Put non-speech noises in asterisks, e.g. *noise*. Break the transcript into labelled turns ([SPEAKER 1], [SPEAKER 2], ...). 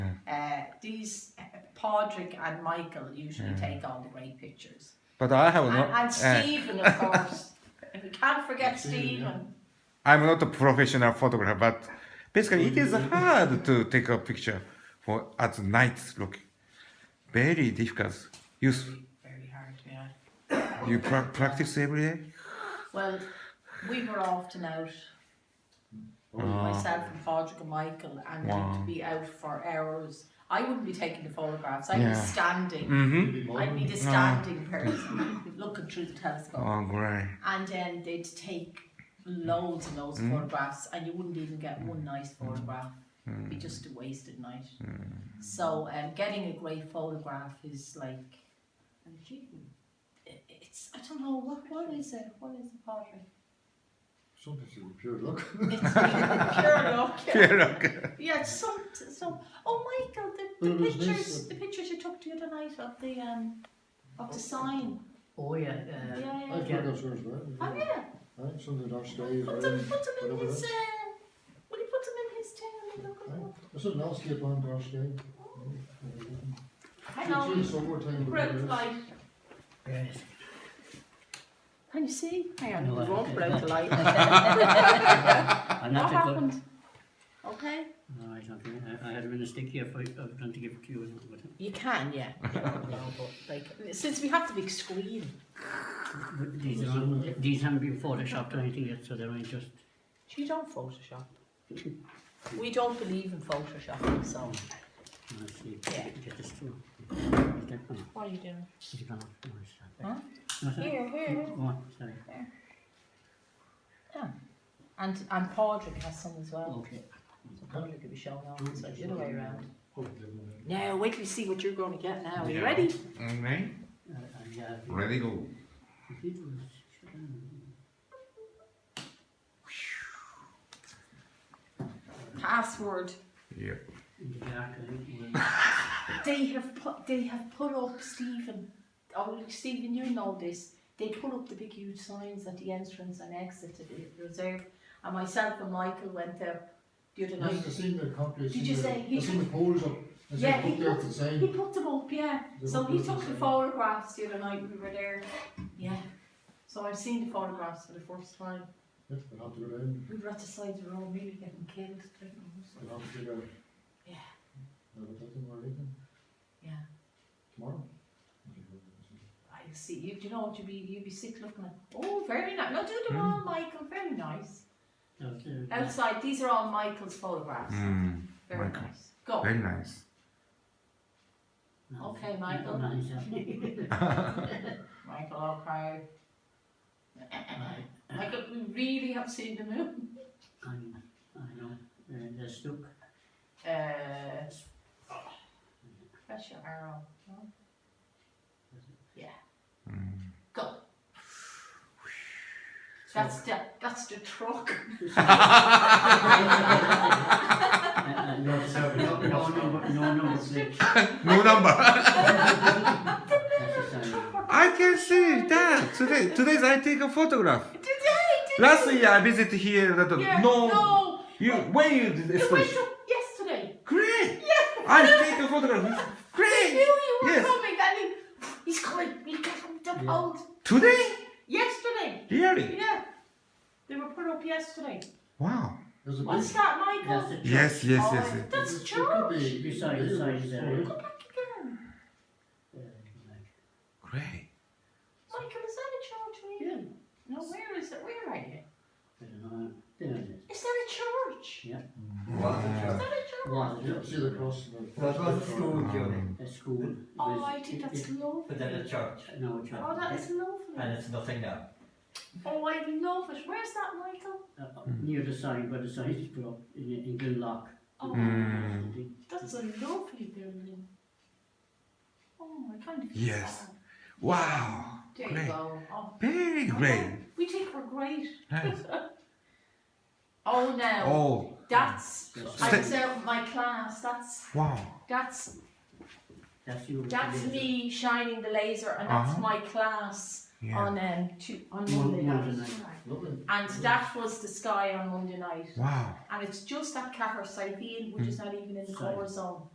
[SPEAKER 1] Uh, these Padraig and Michael usually
[SPEAKER 2] Mm.
[SPEAKER 1] take all the great pictures.
[SPEAKER 2] But I have
[SPEAKER 1] And,
[SPEAKER 2] not.
[SPEAKER 1] and
[SPEAKER 2] eh,
[SPEAKER 1] Stephen, of
[SPEAKER 2] *laughs*
[SPEAKER 1] course. we can't forget Stephen.
[SPEAKER 2] I'm not a professional photographer, but basically it is hard to take a picture for at night. Look, very difficult. You s-
[SPEAKER 1] Very hard, yeah.
[SPEAKER 2] you pra- practice every day.
[SPEAKER 1] Well, we were often out,
[SPEAKER 2] Uh,
[SPEAKER 1] myself and Padraig and Michael, and
[SPEAKER 2] Wow.
[SPEAKER 1] we'd be out for hours. I wouldn't be taking the photographs, I'd
[SPEAKER 2] Yeah.
[SPEAKER 1] be standing.
[SPEAKER 2] mm-hmm.
[SPEAKER 1] I'd be the standing person looking through the telescope.
[SPEAKER 2] Oh, great. *laughs*
[SPEAKER 1] And then they'd take loads and loads of photographs, and you wouldn't even get one nice photograph. It'd be just a wasted night. So, um, getting a great photograph is like an achievement. I- It's I don't know what what is it? What is the pottery?
[SPEAKER 3] Sometimes it was pure luck.
[SPEAKER 1] It's pure luck.
[SPEAKER 2] Yeah, look.
[SPEAKER 1] Yeah, it's some so. Oh, Michael, the,
[SPEAKER 3] Well,
[SPEAKER 1] the
[SPEAKER 3] it was nice,
[SPEAKER 1] pictures
[SPEAKER 3] uh,
[SPEAKER 1] the pictures you took the other night of the um of the sign.
[SPEAKER 4] Oh yeah,
[SPEAKER 1] Yeah, yeah.
[SPEAKER 4] uh,
[SPEAKER 3] I
[SPEAKER 1] yeah.
[SPEAKER 3] think that's yours, right?
[SPEAKER 1] Oh yeah.
[SPEAKER 3] Right, something our stays.
[SPEAKER 1] Put them, put them in his. Uh, will you put them in his tail? Look at them.
[SPEAKER 3] This is an landscape on our stay.
[SPEAKER 1] Hang on.
[SPEAKER 3] It's over time. but it
[SPEAKER 1] Road
[SPEAKER 3] is.
[SPEAKER 1] light.
[SPEAKER 4] yes.
[SPEAKER 1] Can you see? Hang on.
[SPEAKER 4] No,
[SPEAKER 1] we
[SPEAKER 4] I
[SPEAKER 1] won't
[SPEAKER 4] can't.
[SPEAKER 1] road *laughs* light.
[SPEAKER 4] And
[SPEAKER 1] what
[SPEAKER 4] that's a good.
[SPEAKER 1] happened? Okay.
[SPEAKER 4] No, I don't think I, I had a mistake here. For, I was trying to give a cue. and But
[SPEAKER 1] You can, *laughs* yeah. no, but like, since we have the big screen.
[SPEAKER 4] but these, are all, these haven't been photoshopped or anything yet, so they're only just.
[SPEAKER 1] You don't Photoshop. We don't believe in Photoshop, so.
[SPEAKER 4] Let's see.
[SPEAKER 1] Yeah.
[SPEAKER 4] Get this through.
[SPEAKER 1] What are you doing?
[SPEAKER 4] Is it gone? No, it's not there.
[SPEAKER 1] Huh?
[SPEAKER 4] No, sorry.
[SPEAKER 1] Here, here.
[SPEAKER 4] Go on, sorry.
[SPEAKER 1] Yeah. And, and Padraig has some as well.
[SPEAKER 4] Okay.
[SPEAKER 1] So Padraig could be showing off, so it's the other way around.
[SPEAKER 3] Oh, give them
[SPEAKER 1] Now, wait till you see what you're going to get now. Are you
[SPEAKER 2] Yeah.
[SPEAKER 1] ready?
[SPEAKER 2] Okay.
[SPEAKER 4] Uh, uh, yeah, I think-
[SPEAKER 2] Ready go.
[SPEAKER 4] I think it was- um,
[SPEAKER 1] Password.
[SPEAKER 2] Yeah.
[SPEAKER 4] in the dark, I think it was-
[SPEAKER 1] They have put they have put up Stephen. Oh, Stephen, you know this. They put up the big huge signs at the entrance and exit to the reserve. And myself and Michael went there the other
[SPEAKER 3] This
[SPEAKER 1] night.
[SPEAKER 3] is the same that company.
[SPEAKER 1] Did you say he-
[SPEAKER 3] It's in the poles up. It's
[SPEAKER 1] Yeah,
[SPEAKER 3] in
[SPEAKER 1] he
[SPEAKER 3] the poles
[SPEAKER 1] put-
[SPEAKER 3] up the
[SPEAKER 1] He
[SPEAKER 3] same.
[SPEAKER 1] put them up, yeah. So he took the photographs the other night we were there. Yeah. So I've seen the photographs for the first time.
[SPEAKER 3] Yeah, We'll have to go down.
[SPEAKER 1] We were at the side of the road, really getting killed. I don't know, so-
[SPEAKER 3] We'll have to go down.
[SPEAKER 1] Yeah.
[SPEAKER 3] No, but that's in our evening.
[SPEAKER 1] Yeah.
[SPEAKER 3] Tomorrow?
[SPEAKER 1] I see. You, do you know what you'd be? You'd be sick looking at. Oh, very nice. No, do them all, Michael. Very nice.
[SPEAKER 4] that was
[SPEAKER 1] Oh,
[SPEAKER 4] the-
[SPEAKER 1] Outside, these are all Michael's photographs.
[SPEAKER 2] Mm,
[SPEAKER 1] Very
[SPEAKER 2] Michael.
[SPEAKER 1] nice. Go.
[SPEAKER 2] very nice.
[SPEAKER 4] no,
[SPEAKER 1] Okay,
[SPEAKER 4] no,
[SPEAKER 1] Michael.
[SPEAKER 4] no, it's not. *laughs*
[SPEAKER 1] Michael Alcry.
[SPEAKER 4] Right.
[SPEAKER 1] Michael, we really have seen the moon.
[SPEAKER 4] I'm- I know. Uh, there's Luke.
[SPEAKER 1] Uh, press your arrow. No? Yeah.
[SPEAKER 2] Hmm.
[SPEAKER 1] Go. That's the, that's the
[SPEAKER 2] *laughs*
[SPEAKER 1] truck.
[SPEAKER 4] Uh, no, sorry, no, no, no, no, no, it's the-
[SPEAKER 2] No number. *laughs*
[SPEAKER 4] that's the sign.
[SPEAKER 2] I can see that today. Today I take a photograph.
[SPEAKER 1] Today, today.
[SPEAKER 2] Last year I visit here. That
[SPEAKER 1] Yeah,
[SPEAKER 2] no,
[SPEAKER 1] no.
[SPEAKER 2] You when you
[SPEAKER 1] It
[SPEAKER 2] did
[SPEAKER 1] went
[SPEAKER 2] express.
[SPEAKER 1] up yesterday.
[SPEAKER 2] Great. I take a photograph.
[SPEAKER 1] I knew
[SPEAKER 2] Great.
[SPEAKER 1] you were
[SPEAKER 2] Yes.
[SPEAKER 1] coming. And he, he's coming. He got up the hold.
[SPEAKER 2] Today?
[SPEAKER 1] Yesterday.
[SPEAKER 2] Really?
[SPEAKER 1] Yeah. They were put up yesterday.
[SPEAKER 2] Wow.
[SPEAKER 3] There's a
[SPEAKER 1] What's
[SPEAKER 3] big-
[SPEAKER 1] that, Michael?
[SPEAKER 4] That's the-
[SPEAKER 2] Yes, yes, yes. yes.
[SPEAKER 1] Oh, That's
[SPEAKER 3] it could
[SPEAKER 1] George.
[SPEAKER 3] be-
[SPEAKER 4] You saw it, you saw it there.
[SPEAKER 1] Go back again.
[SPEAKER 4] Uh,
[SPEAKER 2] Great.
[SPEAKER 1] Michael, is that a church
[SPEAKER 4] Yeah.
[SPEAKER 1] really? No, where is it? Where are you?
[SPEAKER 4] I don't know. There it is.
[SPEAKER 1] Is that a church? Is that a church?
[SPEAKER 4] Was
[SPEAKER 3] Yeah, see
[SPEAKER 4] it?
[SPEAKER 3] the cross. and the-
[SPEAKER 5] That was school during,
[SPEAKER 4] A school. It
[SPEAKER 1] Oh,
[SPEAKER 4] was-
[SPEAKER 1] I think
[SPEAKER 4] it-
[SPEAKER 1] that's
[SPEAKER 4] it-
[SPEAKER 1] lovely.
[SPEAKER 5] but then a church,
[SPEAKER 4] No, it's
[SPEAKER 1] Oh,
[SPEAKER 4] not.
[SPEAKER 1] that is
[SPEAKER 5] and
[SPEAKER 1] lovely.
[SPEAKER 5] it's nothing now.
[SPEAKER 1] Oh, I love it. Where's that, Michael?
[SPEAKER 4] Uh, uh, Near the sign, where the sign is put up, in, in Glenlock.
[SPEAKER 1] Oh,
[SPEAKER 2] Mm.
[SPEAKER 1] that's a lovely building. Oh, I kind of feel
[SPEAKER 2] Yes.
[SPEAKER 1] sad.
[SPEAKER 2] Wow.
[SPEAKER 1] There you
[SPEAKER 2] Great.
[SPEAKER 1] go. Oh,
[SPEAKER 2] Very great.
[SPEAKER 1] We think we're great.
[SPEAKER 2] Nice.
[SPEAKER 1] Oh no,
[SPEAKER 2] Oh.
[SPEAKER 1] that's
[SPEAKER 4] Yes.
[SPEAKER 1] I was out with my class. That's
[SPEAKER 2] Wow.
[SPEAKER 1] that's
[SPEAKER 4] That's you.
[SPEAKER 1] that's me shining the laser, and that's
[SPEAKER 2] Uh-huh.
[SPEAKER 1] my class
[SPEAKER 2] Yeah.
[SPEAKER 1] on um two, on
[SPEAKER 4] Mon-
[SPEAKER 1] Monday
[SPEAKER 4] Monday
[SPEAKER 1] night.
[SPEAKER 4] night.
[SPEAKER 3] Lovely.
[SPEAKER 1] And that was the sky on Monday night,
[SPEAKER 2] Wow.
[SPEAKER 4] Hmm.
[SPEAKER 1] and it's just at Caversidine, which is not even in the
[SPEAKER 4] Sky.
[SPEAKER 1] colour zone.